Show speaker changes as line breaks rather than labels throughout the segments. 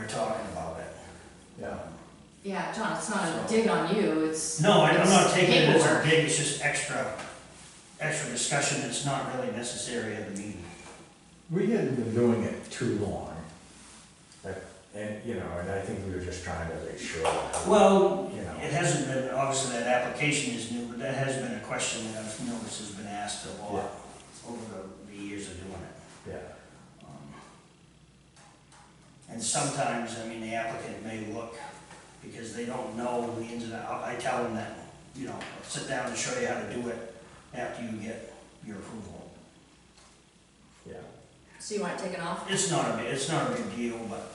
talking about it.
yeah.
Yeah, John, it's not a dig on you, it's.
No, I- I'm not
it's
taking it as a
paperwork.
dig, it's just extra, extra discussion that's not really necessary at the meeting.
We hadn't been doing it too long. But, and, you know, and I think we were just trying to make sure. that-
Well,
You know.
it hasn't been, obviously that application is new, but that has been a question that I've noticed has been asked a lot over the, the years of doing it.
Yeah,
Um, And sometimes, I mean, the applicant may look, because they don't know the ins and outs, I tell them that, you know, I'll sit down and show you how to do it after you get your approval.
yeah.
So you want it taken off?
It's not a, big- it's not a big deal, but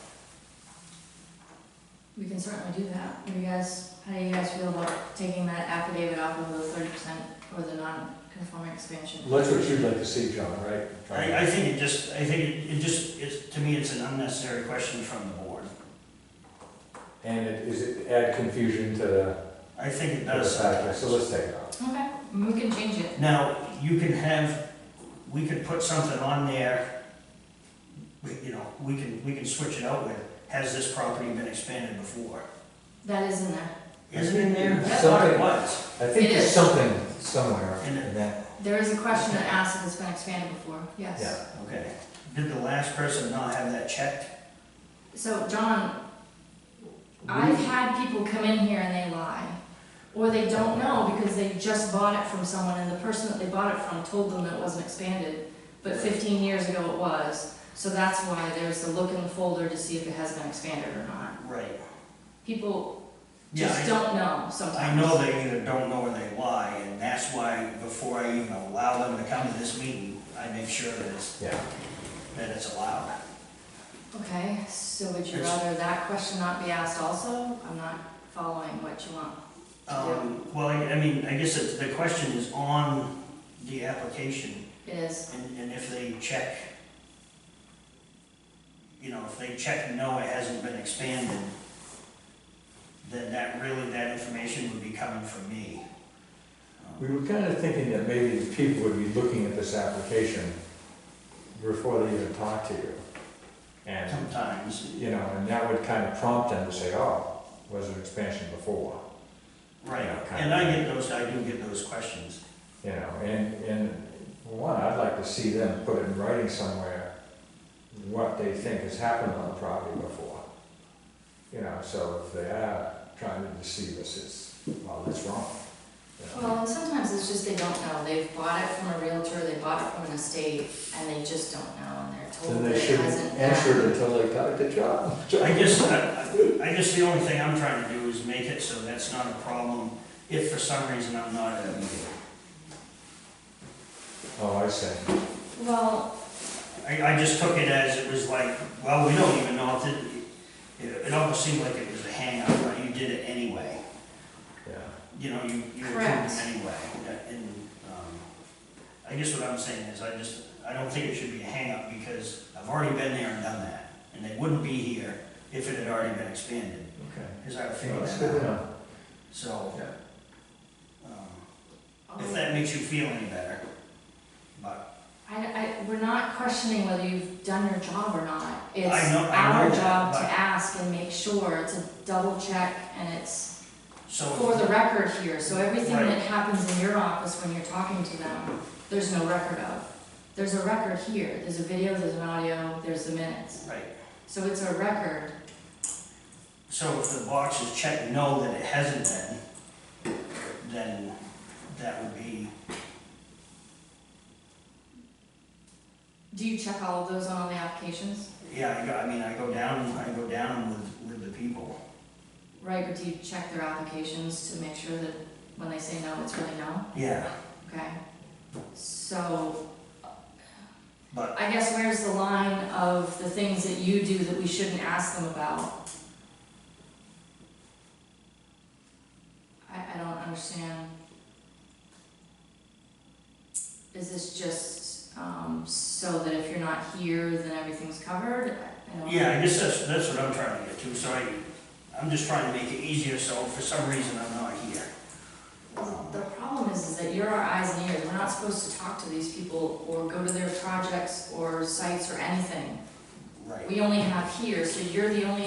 We can certainly do that. What do you guys, how do you guys feel about taking that affidavit off of the thirty percent or the non-conforming expansion?
Well, That's what you'd like to see, John, right?
I, I think it just, I think it- it just, it's, to me, it's an unnecessary question from the board.
And it, is it add confusion to the,
I think it
to the
does
fact, so
sometimes.
let's take it off.
Okay, we can change it.
Now, you can have, we could put something on there, we- you know, we can, we can switch it out with, has this property been expanded before?
That is in there.
Isn't it in there? I thought it
Something-
was.
I think
It
there's
is.
something somewhere
In it.
in that,
There is a question that asks if it's been expanded before, yes.
yeah.
Okay. Did the last person not have that checked?
So, John, I've had people come in here and they lie. Or they don't know because they just bought it from someone and the person that they bought it from told them that it wasn't expanded. But fifteen years ago it was, so that's why there's the look in the folder to see if it has been expanded or not.
Right.
People
Yeah,
just
I-
don't know sometimes.
I know they either don't know or they lie, and that's why before I even allow them to come to this meeting, I make sure that it's,
Yeah,
that it's allowed.
Okay, so would you
It's-
rather that question not be asked also? I'm not following what you want.
Um, well, I, I mean, I guess it's, the question is on the application,
It is,
and, and if they check, you know, if they check, no, it hasn't been expanded, then that really, that information would be coming from me. Um,
we were kind of thinking that maybe people would be looking at this application before they even talk to you. And,
Sometimes,
you know, and that would kind of prompt them to say, oh, was there expansion before?
right,
Yeah, kind
and I
of.
get those, I do get those questions.
You know, and, and for one, I'd like to see them put in writing somewhere what they think has happened on the property before. You know, so if they are trying to deceive us, it's, well, that's wrong. you know.
well, and sometimes it's just they don't know, they've bought it from a realtor, they bought it from an estate, and they just don't know, and they're told
Then
that
they
it
shouldn't
hasn't.
answer it
happened.
until they got the job.
I guess, I I guess the only thing I'm trying to do is make it so that's not a problem if for some reason I'm not at a meeting.
Oh, I see.
Well,
I, I just took it as it was like, well, we don't even know if it, it, it almost seemed like it was a hangup, but you did it anyway.
Yeah.
You know, you, you approved
Correct.
it anyway. That- And, um, I guess what I'm saying is I just, I don't think it should be a hangup because I've already been there and done that. And they wouldn't be here if it had already been expanded,
Okay.
because I
Well,
figured
that's
that
good
out.
enough.
So,
Yeah.
um,
I,
if that makes you feel any better, but
I, we're not questioning whether you've done your job or not. It's
I know- I
our
know that,
job to
but-
ask and make sure, it's a double check, and it's
so.
for the record here, so everything
Right.
that happens in your office when you're talking to them, there's no record of. There's a record here, there's a video, there's an audio, there's the minutes,
Right.
so it's a record.
So if the box is checked no that it hasn't been, then that would be,
Do you check all of those on all the applications?
yeah, I go, I mean, I go down, I go down with, with the people.
Right, but do you check their applications to make sure that when they say no, it's really no?
Yeah,
Okay? So,
but,
I guess where's the line of the things that you do that we shouldn't ask them about? I, I don't understand. Is this just, um, so that if you're not here, then everything's covered? I don't-
yeah, I guess that's, that's what I'm trying to get to, so I, I'm just trying to make it easier, so for some reason I'm not here.
Well, the problem is, is that you're our eyes and ears, we're not supposed to talk to these people or go to their projects or sites or anything.
Right.
We only have here, so you're the only